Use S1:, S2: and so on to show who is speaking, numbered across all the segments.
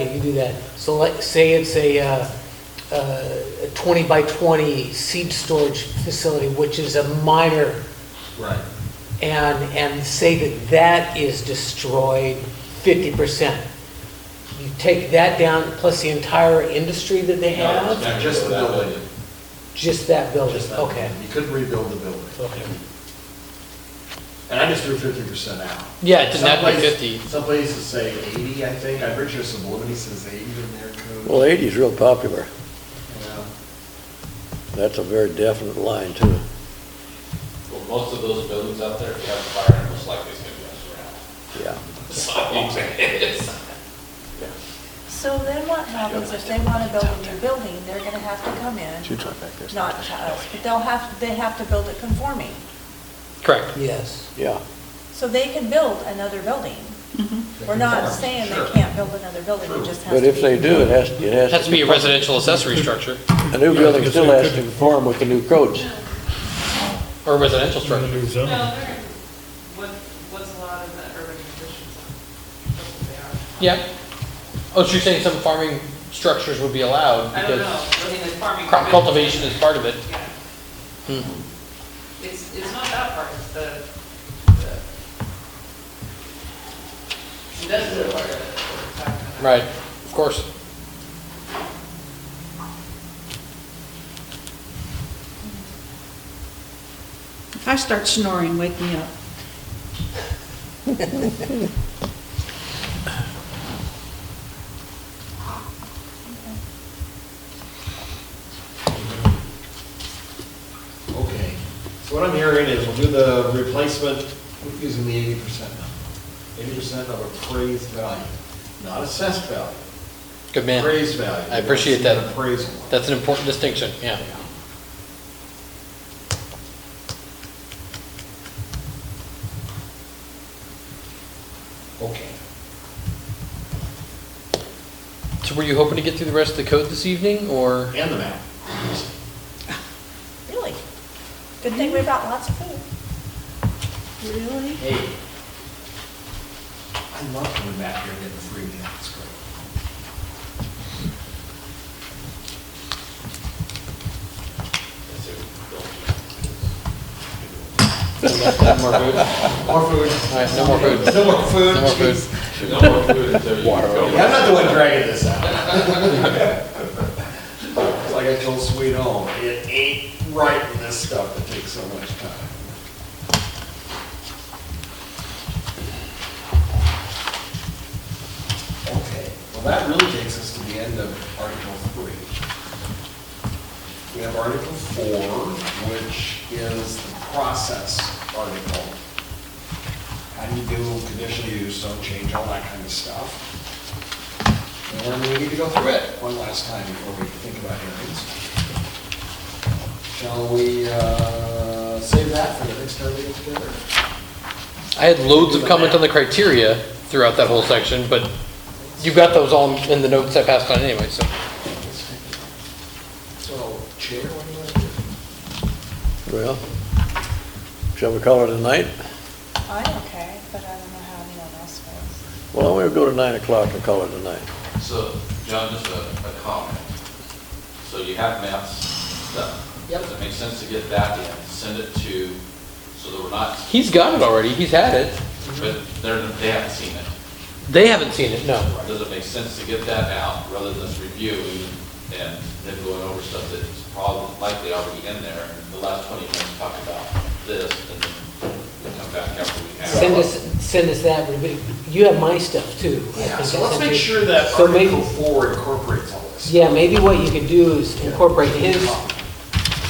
S1: Okay, you do that. So like, say it's a, uh, uh, a 20 by 20 seed storage facility, which is a minor,
S2: Right.
S1: and, and say that that is destroyed 50%. You take that down, plus the entire industry that they have?
S2: No, Just the building.
S1: Just that building,
S2: Just that.
S1: okay.
S2: You couldn't rebuild the building.
S1: Okay.
S2: And I just threw fifty percent out.
S3: Yeah, it doesn't have to be
S2: Some places- Some places
S3: 50.
S2: say eighty, I think. I'm pretty sure Sublimity says eighty in their code.
S4: Well, 80 is real popular.
S2: Yeah.
S4: That's a very definite line, too.
S5: Well, most of those buildings out there, if you have a fire, most likely it's gonna be us around.
S4: Yeah.
S5: So, I'm saying, it's-
S6: So then what happens if they want to build a new building, they're going to have to come in, not to us, but they'll have, they have to build it conforming.
S3: Correct.
S1: Yes.
S4: Yeah.
S6: So they can build another building.
S2: Mm-hmm.
S6: We're not saying they can't build another building, it just has to
S4: But
S6: be.
S4: if they do, it has, it
S3: It
S4: has.
S3: has to be a residential accessory structure
S4: A new building still has to conform with the new codes.
S3: or a residential structure.
S7: Trying to do
S8: No,
S7: zoning.
S8: they're, what, what's allowed in the urban conditions zone? That's what they are.
S3: Yeah. Oh, so you're saying some farming structures would be allowed
S8: I don't know,
S3: because
S8: I mean, the farming.
S3: crop cultivation is part of it.
S8: Yeah,
S3: Hmm.
S8: it's, it's not that part, it's the, the industrial part of it. we're talking about.
S3: Right, of course.
S9: If I start snoring, wake me up.
S2: Okay. So what I'm hearing is we'll do the replacement using the eighty percent number. Eighty percent of appraised value, not assessed value.
S3: Good man.
S2: Appraised value.
S3: I appreciate that.
S2: It's an Appraisal.
S3: That's an important distinction, yeah.
S2: Okay.
S3: So were you hoping to get through the rest of the code this evening or?
S2: And the map.
S6: Really? Good thing we brought lots of food.
S9: Really?
S2: Hey. I love coming back here and getting free meal, it's great.
S5: it's a building.
S3: No more food? All
S2: More food.
S3: right, no more food.
S8: Oh,
S2: No more food.
S3: No more food.
S2: jeez.
S5: No more food until you go.
S2: Yeah, I'm not the one dragging this out. It's like I told Sweet Home, it ain't right with this stuff that takes so much time. Okay, well, that really takes us to the end of Article Three. We have Article Four, which is the process article. How do you do conditional use, don't change, all that kind of stuff. And we're going to need to go through it one last time before we think about hearings. Shall we uh, save that for the next time we get together?
S3: I had loads of comment on the criteria throughout that whole section, but you've got those all in the notes I passed on anyway, so.
S2: So, Chair, what do you want to do?
S4: Well, shall we call it a night?
S6: I'm okay, but I don't know how anyone else feels.
S4: Well, we'll go to 9 o'clock and call it a night.
S5: So, John, just a, a comment. So you have maps done.
S2: Yep.
S5: Does it make sense to get that and send it to, so that we're not,
S3: He's got it already, he's had it.
S5: but they're, they haven't seen it.
S3: They haven't seen it, no.
S5: Does it make sense to get that out rather than us reviewing and then going over stuff that's probably likely already in there? and The last 20 minutes talk about this and then we come back after we have.
S1: Send us, send us that, but you have my stuff too. I
S2: Yeah,
S1: think
S2: so
S1: I
S2: let's
S1: sent
S2: make
S1: you.
S2: sure that
S1: So maybe-
S2: Article 4 incorporates all this.
S1: Yeah, maybe what you could do is incorporate his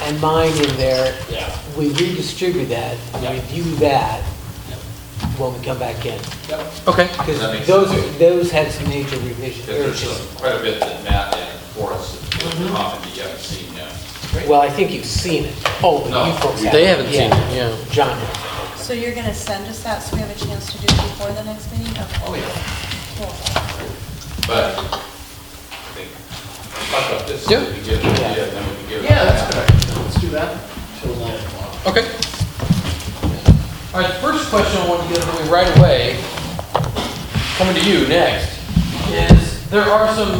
S1: and mine in there.
S5: Yeah.
S1: We redistribute that,
S5: Yeah.
S1: review that when we come back in.
S2: Yep.
S3: Okay.
S5: That makes
S1: Because
S5: sense.
S1: those, those had some major revisions.
S5: Because there's some- quite a bit that Matt and Forrest
S1: Mm-hmm.
S5: have commented you haven't seen yet.
S1: Well, I think you've seen it. Oh, but
S5: No,
S1: you folks haven't.
S3: They haven't seen
S1: Yeah.
S3: it, yeah.
S1: John, has.
S6: So you're going to send us that so we have a chance to do it before the next meeting?
S2: Oh, yeah.
S6: yeah.
S5: But I think, talk about this, so we can get an idea and then we can give. it
S2: Yeah,
S5: back.
S2: that's good. idea. Let's do that till 9 o'clock.
S3: Okay. All right, first question I wanted to get out of the way right away, coming to you next, is there are some